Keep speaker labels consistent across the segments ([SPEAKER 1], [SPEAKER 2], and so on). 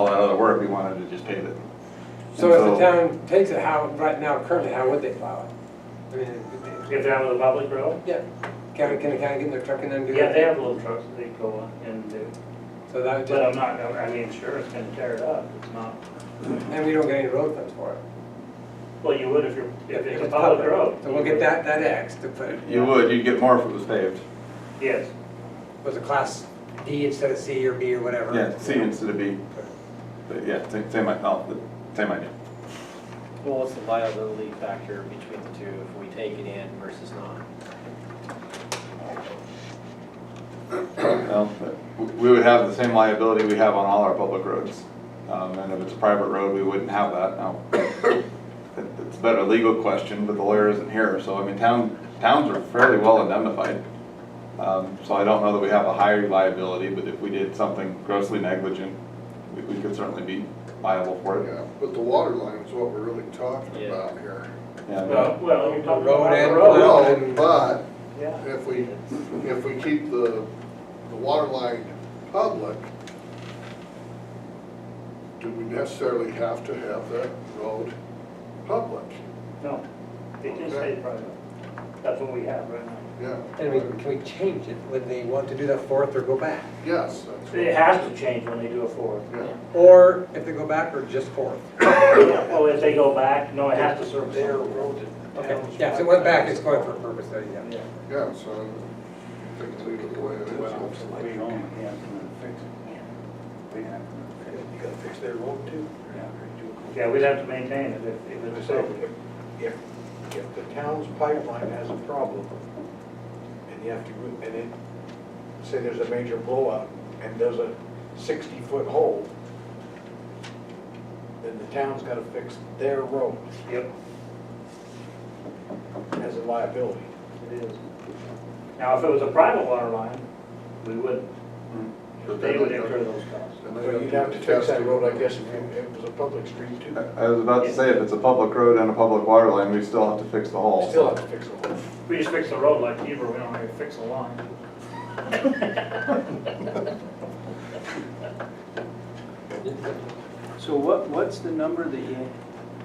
[SPEAKER 1] or if we wanted to just pave it.
[SPEAKER 2] So if the
[SPEAKER 1] And
[SPEAKER 2] town takes it, how, right now, currently, how would they plow it? I mean, it- it-
[SPEAKER 3] Get down to the public road?
[SPEAKER 2] yeah, can, can, can I get in their truck and then do it?
[SPEAKER 3] Yeah, they have little trucks that they go on and do,
[SPEAKER 2] So that would
[SPEAKER 3] but I'm
[SPEAKER 2] just,
[SPEAKER 3] not, gonna- I mean, sure, it's gonna tear it up, it's not,
[SPEAKER 2] and we don't get any road funds for it.
[SPEAKER 3] well, you would if you're, if it's a public road.
[SPEAKER 2] So we'll get that, that X to put, it
[SPEAKER 1] You would, you'd get more if it was paved.
[SPEAKER 3] Yes,
[SPEAKER 2] was a class D instead of C or B or whatever.
[SPEAKER 1] Yeah, C instead of B. But yeah, same, same, i- no, the- same idea.
[SPEAKER 4] Well, what's the liability factor between the two if we take it in versus not?
[SPEAKER 1] Well, but w- We would have the same liability we have on all our public roads. Um, And if it's a private road, we wouldn't have that. Now, it- it's about a legal question, but the lawyer isn't here, so I mean, town, towns are fairly well indemnified. Um, So I don't know that we have a higher liability, but if we did something grossly negligent, we- we could certainly be liable for it.
[SPEAKER 5] Yeah, but the water line is what we're really talking
[SPEAKER 4] Yeah.
[SPEAKER 5] about here.
[SPEAKER 1] Yeah,
[SPEAKER 3] well, well, you're talking
[SPEAKER 2] Road
[SPEAKER 3] about the
[SPEAKER 2] and
[SPEAKER 3] road.
[SPEAKER 2] plow.
[SPEAKER 5] Well, but
[SPEAKER 3] Yeah,
[SPEAKER 5] if we, if we keep the, the water line public, do we necessarily have to have that road public?
[SPEAKER 3] no, they do say private, that's what we have right now.
[SPEAKER 5] Yeah.
[SPEAKER 2] And we, can we change it when they want to do the fourth or go back?
[SPEAKER 5] Yes, that's what-
[SPEAKER 3] It has to change when they do a fourth.
[SPEAKER 5] yeah.
[SPEAKER 2] Or if they go back, or just fourth?
[SPEAKER 3] Well, if they go back, no, it has to serve their road.
[SPEAKER 2] Okay, yeah, if it went back, it's going for a purpose, there you go.
[SPEAKER 3] Yeah.
[SPEAKER 5] Yeah, so I think leave it the way it is.
[SPEAKER 6] We own it, we have to fix it. We have to fix
[SPEAKER 7] You gotta fix their road too.
[SPEAKER 6] it.
[SPEAKER 3] Yeah, we'd have to maintain it if, if it's a
[SPEAKER 7] So
[SPEAKER 3] safety.
[SPEAKER 7] if, if, if the town's pipeline has a problem and you have to, go- and it, say there's a major blowout and there's a sixty-foot hole, then the town's gotta fix their road
[SPEAKER 3] Yep,
[SPEAKER 7] as a liability.
[SPEAKER 3] it is. Now, if it was a private water line, we wouldn't.
[SPEAKER 5] But
[SPEAKER 3] They
[SPEAKER 5] then
[SPEAKER 3] would
[SPEAKER 5] they-
[SPEAKER 3] incur those costs.
[SPEAKER 5] And
[SPEAKER 7] But
[SPEAKER 5] they
[SPEAKER 7] you'd have to fix
[SPEAKER 5] test
[SPEAKER 7] that
[SPEAKER 5] it.
[SPEAKER 7] road, I guess, if it if it was a public street too.
[SPEAKER 1] I- I was about to say, if it's a public road and a public water line, we still have to fix the hole.
[SPEAKER 7] Still have to fix the hole.
[SPEAKER 3] We just fix the road like Beaver, we don't have to fix the line.
[SPEAKER 6] So what, what's the number that you,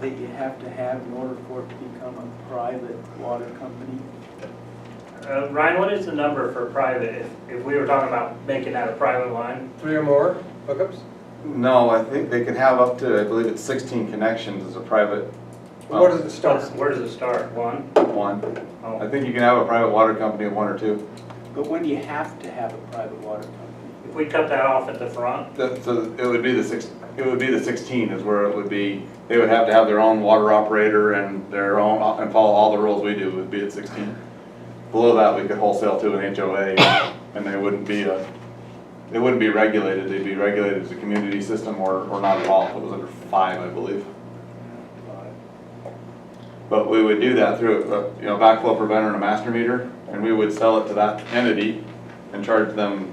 [SPEAKER 6] that you have to have in order for it to become a private water company?
[SPEAKER 3] Uh, Ryan, what is the number for private, if, if we were talking about making that a private line?
[SPEAKER 2] Three or more hookups?
[SPEAKER 1] No, I think they can have up to, I believe it's sixteen connections as a private. well,
[SPEAKER 2] Where does it start?
[SPEAKER 3] Where does it start? One?
[SPEAKER 1] One. I
[SPEAKER 3] Oh.
[SPEAKER 1] think you can have a private water company of one or two.
[SPEAKER 6] But when do you have to have a private water company?
[SPEAKER 3] If we cut that off at the front,
[SPEAKER 1] The- So it would be the six, it would be the sixteen is where it would be, they would have to have their own water operator and their own, and follow all the rules we do would be at sixteen. Below that, we could wholesale to an HOA and they wouldn't be a, they wouldn't be regulated. They'd be regulated as a community system or, or not at all. It was under five, I believe. But we would do that through, uh, you know, backflow preventer and a master meter, and we would sell it to that entity and charge them,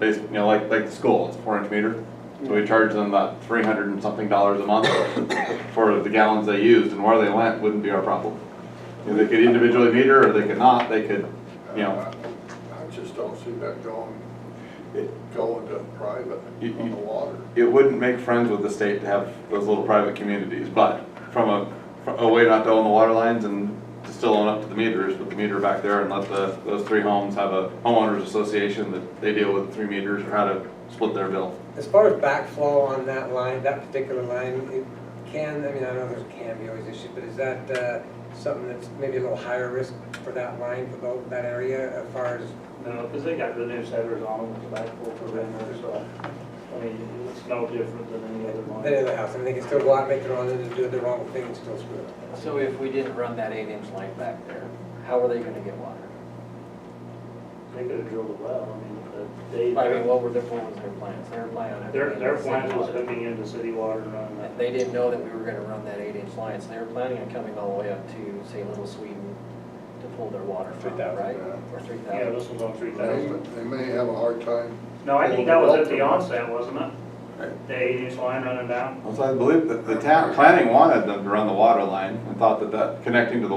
[SPEAKER 1] basically, you know, like, like the school, it's a four inch meter. So we charge them about three hundred and something dollars a month for the gallons they used, and where they went wouldn't be our problem. You know, They could individually meter, or they could not, they could, you know,
[SPEAKER 5] I I just don't see that going,
[SPEAKER 1] It-
[SPEAKER 5] going to private
[SPEAKER 1] You- you-
[SPEAKER 5] on the water.
[SPEAKER 1] it wouldn't make friends with the state to have those little private communities, but from a, from a way not to own the water lines and to still own up to the meters, put the meter back there and let the, those three homes have a homeowners association that they deal with three meters or how to split their bill.
[SPEAKER 2] As far as backflow on that line, that particular line, it can, I mean, I know there's can be always issues, but is that uh, something that's maybe a little higher risk for that line, for tho- that area, as far as,
[SPEAKER 3] no, because they got the new setters on them, the backflow preventer, so, I mean, it's no different than any other line.
[SPEAKER 2] than any other house? I mean, they can still go out, and make their own, and do the wrong thing, and still screw it up.
[SPEAKER 4] So if we didn't run that eight-inch line back there, how are they gonna get water?
[SPEAKER 3] They could have drilled a well, I mean,
[SPEAKER 4] I
[SPEAKER 3] but
[SPEAKER 4] mean, what were their, what was their plans? Their plan on.
[SPEAKER 3] they, their, their
[SPEAKER 4] plan
[SPEAKER 3] plans was hooking into city water and running that.
[SPEAKER 4] And they didn't know that we were gonna run that eight-inch line, so they were planning on coming all the way up to, say, Little Sweden to pull their water from,
[SPEAKER 2] 3,000,
[SPEAKER 4] right?
[SPEAKER 5] yeah.
[SPEAKER 4] Or three
[SPEAKER 3] Yeah,
[SPEAKER 4] thousand.
[SPEAKER 3] this was on three
[SPEAKER 5] They
[SPEAKER 3] thousand.
[SPEAKER 5] they may have a hard time
[SPEAKER 3] No, I think that was at the onset, wasn't it?
[SPEAKER 1] Right.
[SPEAKER 3] The eight inch line running down.
[SPEAKER 1] So I believe that the town, planning wanted them to run the water line and thought that that connecting to the